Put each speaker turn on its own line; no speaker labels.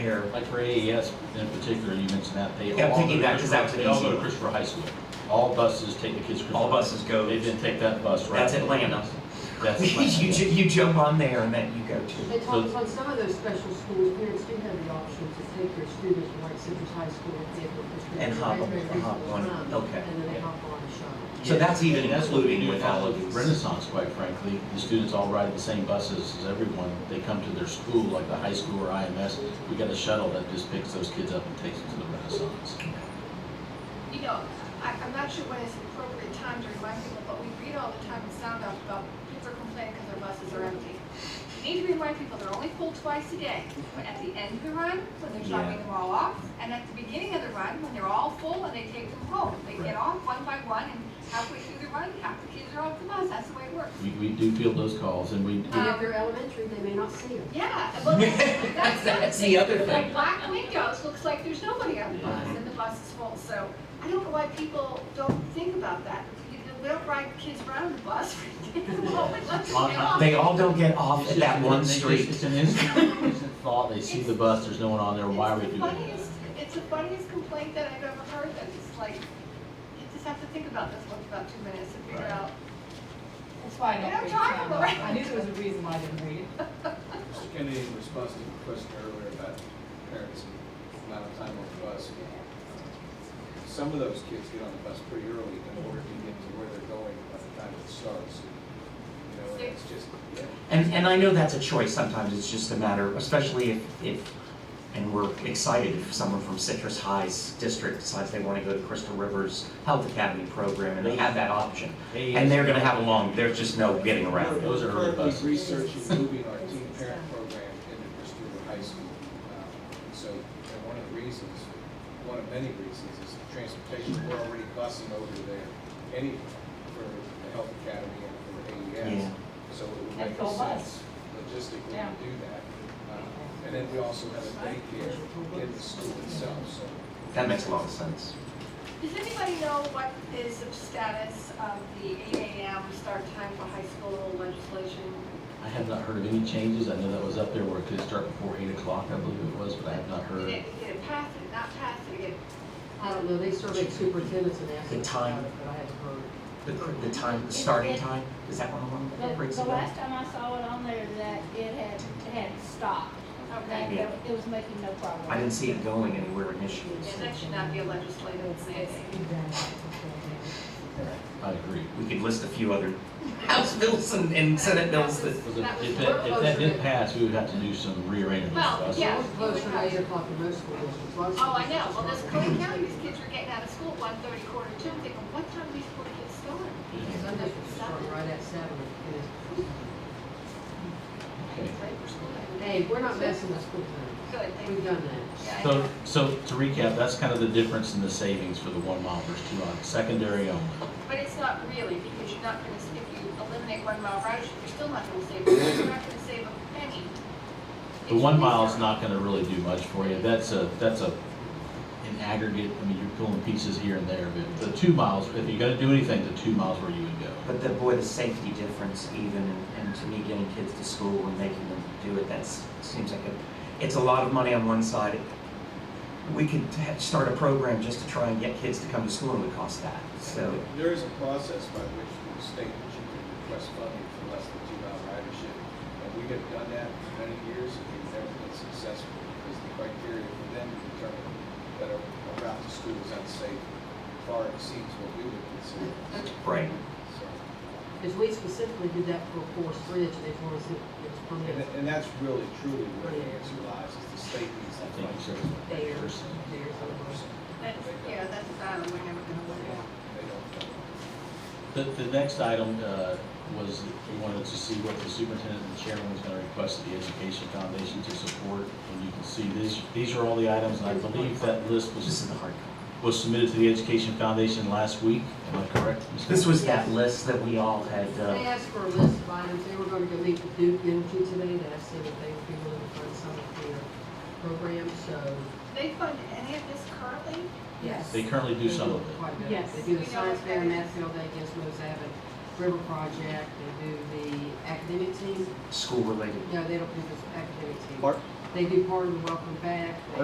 here.
Like for AES in particular, you mentioned that they all.
Yeah, I'm thinking
go to
that 'cause that was an
Christopher- They all
easy
go to
one.
Christopher High School. All buses take the kids to Christopher.
All buses go-
They didn't take that bus, right?
That's Atlanta.
That's
You,
Atlanta.
ju- you jump on there and then you go to.
They told us on some of those special schools, parents do have the option to take their students from like Citrus High School and take them to Citrus.
And hop on- hop on, okay.
And then they hop on the shuttle.
So that's even
And that's what we
including
do in
with
all
all
of
of
Renaissance, quite frankly. The students all ride the same buses as everyone. They come to their school, like the high school or IMS. We got a shuttle that just picks those kids up and takes them to the Renaissance.
you know, I, I'm not sure when is the appropriate time to remind people, but we read all the time in sound off about people are complaining because their buses are empty. We need to remind people they're only full twice a day, when at the end of the run, when they're dropping them all off, and at the beginning of the run, when they're all full and they take them home. They
Right.
get off one by one, and halfway through the run, half the kids are off the bus, that's the way it works.
We, we do field those calls and we,
And if Uh, they're elementary, they may not see them.
Yeah, well, that's,
That's the other thing.
Like black windows, looks like there's nobody on the bus, and the bus is full, so I don't know why people don't think about that. You know, We don't ride kids around the bus, we take them home and let them
On-
get off.
They all don't get off
It's
at that
just-
one
they just-
street.
It's an instant, instant thought, they see the bus, there's no one on there, why are we
It's the
doing that?
funniest, it's the funniest complaint that I've ever heard, that it's like, you just have to think about this one for about two minutes and figure
Right.
out.
That's why I
Yeah,
don't read
talk
Sam.
about it.
I knew there was a reason why I didn't read it.
Mr. Kennedy, in response to your question earlier about parents and amount of time on the bus, some of those kids get on the bus pretty early in order to get to where they're going by the time it starts. You know, and it's just, yeah.
And, and I know that's a choice sometimes, it's just a matter, especially if, if, and we're excited if someone from Citrus High's district decides they wanna go to Crystal Rivers Health Academy program and they have that option. And they're gonna have a long, there's just no getting around it.
Those are early
We're
buses.
currently researching moving our teen parent program into Bristol High School. Um, So, and one of the reasons, one of many reasons is the transportation, we're already busing over there anyway for the Health Academy and for
Yeah.
AES. So it would
And
make
full bus.
sense logistically
Yeah.
to do that. Um, And then we also have a daycare in the school itself, so
That makes a lot of sense.
Does anybody know what is the status of the eight AM start time for high school legislation?
I have not heard of any changes, I know that was up there where it could start before eight o'clock, I believe it was, but I have not
Did
heard.
it, did it pass, did it not pass, did it get
I don't know, they surveyed superintendents and asked
The
them about
time.
it, but I haven't heard.
The, cr- the time, the starting time, is that one of
The,
them breaks
the
it down?
last time I saw it on there, that it had, it had stopped,
Okay,
that it was making no progress.
I didn't see it going anywhere initially.
and that should not be a legislative mandate.
I agree.
We could list a few other House bills and, and Senate bills that.
Because If if that, if that did pass, we would have to do some rearranging of the
Well,
bus.
yeah.
It was closer to eight o'clock in most schools. It was-
Oh, I know, well, this Cody County, these kids are getting out of school one thirty, quarter to, I'm thinking, what time do these poor kids start?
Some districts start right at seven.
Okay.
Right for school, day.
Hey, we're not messing with school time.
good, thank
We've
you.
done that.
Yeah, I know.
So, so to recap, that's kind of the difference in the savings for the one mile versus two mile, secondary only.
But it's not really, because you're not gonna, s- if you eliminate one mile ridership, you're still not gonna save, you're not gonna save a penny.
The one mile is not gonna really do much for you, that's a, that's a, an aggregate, I mean, you're pulling pieces here and there, but the two miles, if you're gonna do anything, the two miles where you would go.
But the, boy, the safety difference even, and- and to me, getting kids to school and making them do it, that's, seems like a, it's a lot of money on one side. We could ha- start a program just to try and get kids to come to school and it would cost that, so.
There is a process by which the state that you can request funding for less than two mile ridership. And we have done that for many years and we've never been successful because the criteria for them to determine that a a route to school is unsafe far exceeds what we would consider.
Right.
So,
Because we specifically did that for Forest Ridge, they told us it was
And,
permitted
th- and that's really truly where the answer lies, is the state needs
I
that
think it's
funding.
a
there,
person.
there's a-
That's, yeah, that's a battle we're never gonna win.
They don't.
The, the next item, uh, was we wanted to see what the superintendent and chairman was gonna request of the Education Foundation to support. And you can see these, these are all the items, and I believe that list
This
was,
is the hard copy.
was submitted to the Education Foundation last week, am I correct? Ms.
This was that list that we all had,
They
uh,
asked for a list of items, they were gonna go meet with Duke Energy today, they asked them if they would be willing to fund some of their programs, so.
They fund any of this currently?
Yes.
They currently do some of it.
Yes.
They do the
We know
science
what
fair
that
in
is.
Mansfield, they guess Rose Abbott River Project, they do the academic team,
school related.
no, they don't do the academic team.
Part,
They do part of the welcome back,